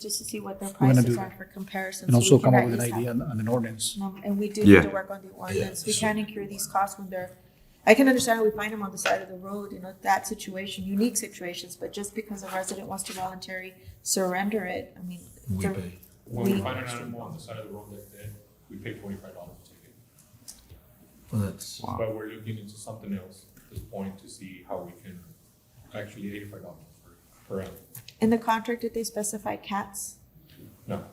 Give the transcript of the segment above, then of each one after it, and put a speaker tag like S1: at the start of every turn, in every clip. S1: just to see what their
S2: gonna
S1: prices
S2: do
S1: are for comparison.
S2: and
S1: so
S2: also
S1: we can
S2: come up
S1: at
S2: with an
S1: least have-
S2: idea on, on an ordinance.
S1: No, And we do need to
S3: Yeah.
S1: work on the ordinance. We can't incur these costs when they're, I can understand we find them on the side of the road, you know, that situation, unique situations, but just because a resident wants to voluntarily surrender it, I mean.
S4: We
S1: the-
S4: pay.
S5: When
S1: We-
S5: we find an animal on the side of the road like that, we pay twenty-five dollars a ticket.
S4: Well, that's,
S5: But we're looking into something else at this point to see how we can, actually eighty-five dollars per, per animal.
S1: In the contract, did they specify cats?
S5: No,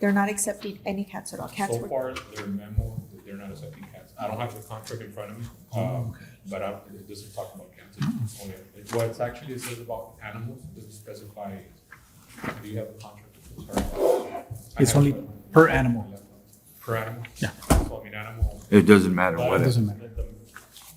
S1: They're not accepting any cats at all. Cats
S5: so
S1: were,
S5: far, their memo, that they're not accepting cats. I don't have the contract in front of me,
S4: Oh,
S5: um,
S4: okay.
S5: but I, it doesn't talk about cats. It's
S2: Hmm.
S5: only, it- what it's actually says about animals, it doesn't specify, do you have a contract? Sorry. I
S2: It's
S5: have
S2: only
S5: it.
S2: per animal.
S5: Per animal?
S2: Yeah.
S5: So I mean, animal,
S3: It doesn't matter
S5: But
S3: what.
S2: It
S3: it-
S2: doesn't matter.
S5: let them-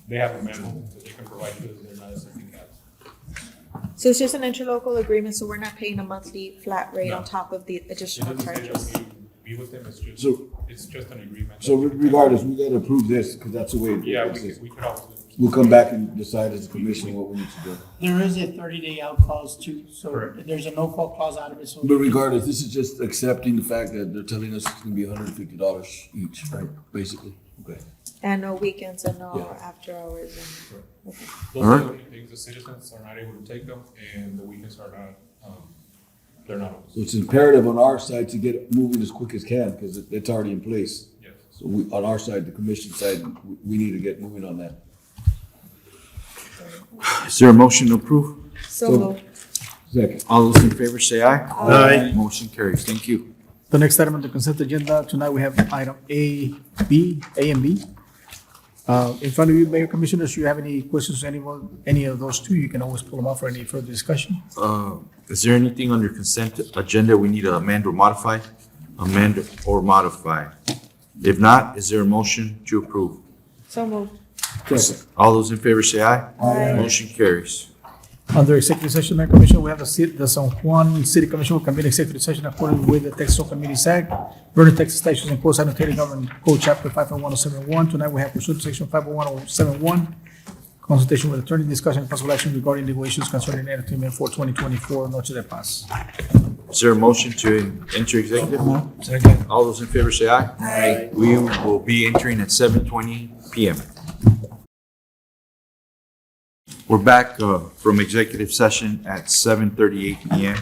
S5: They have a memo that they can provide you, they're not accepting cats.
S1: so it's just an interlocal agreement, so we're not paying a monthly flat rate on
S5: No.
S1: top of the
S5: It
S1: additional
S5: doesn't say
S1: charges.
S5: that we be with them, it's just,
S6: So-
S5: it's just an agreement.
S6: So
S5: that-
S6: regardless, we gotta approve this, because that's the way it
S5: Yeah, we
S6: is.
S5: could, we could always.
S6: We'll come back and decide as a commission what we need to do.
S7: There is a thirty day out clause too, so
S5: Correct.
S7: there's a no call clause out of it, so.
S6: But regardless, this is just accepting the fact that they're telling us it's gonna be hundred and fifty dollars each, right, basically? Okay.
S1: And no weekends and no
S6: Yeah.
S1: after hours and.
S5: Those are the only things, the citizens are not able to take them, and the weekends are not, um, they're not, open.
S6: So it's imperative on our side to get moving as quick as can, because it, it's already in place.
S5: yes.
S6: So we, on our side, the commission side, we, we need to get moving on that.
S3: Is there a motion to approve?
S1: So
S6: So-
S1: moved.
S6: Second.
S3: All those in favor say aye.
S2: Aye.
S3: Motion carries. Thank you.
S2: The next item on the consent agenda, tonight we have item A, B, A and B. Uh, in front of you, Mayor Commissioners, you have any questions, anyone, any of those two, you can always pull them up for any further discussion.
S3: Uh, Is there anything under consent agenda we need to amend or modify? Amend or modify? If not, is there a motion to approve?
S1: So moved.
S6: Second.
S3: All those in favor say aye. Motion carries.
S2: Under executive session, Mayor Commissioner, we have the city, the San Juan City Commission will convene executive session according with the Texas Open Meetings Act, Vernon, Texas Statutes and Code Sanitary Government Code Chapter five oh one oh seven one. Tonight, we have pursuant to section five oh one oh seven one, consultation with attorney, discussion and possible action regarding legal issues concerning entertainment for twenty twenty-four, Noche de Paz.
S3: Is there a motion to enter executive? All those in favor say aye. Aye. We will be entering at seven twenty PM. We're back uh, from executive session at seven thirty-eight PM.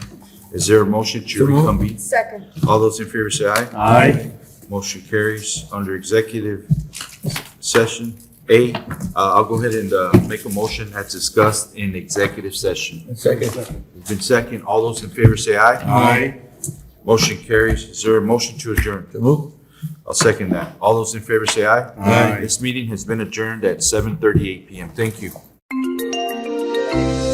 S3: Is there a motion to reconvene?
S1: Second.
S3: All those in favor say aye.
S2: Aye.
S3: Motion carries under executive session. A, uh, I'll go ahead and uh, make a motion that's discussed in executive session.
S6: Second.
S3: It's been second. All those in favor say aye. Aye. Motion carries. Is there a motion to adjourn? I'll second that. All those in favor say aye. Aye. This meeting has been adjourned at 7:38 PM. Thank you.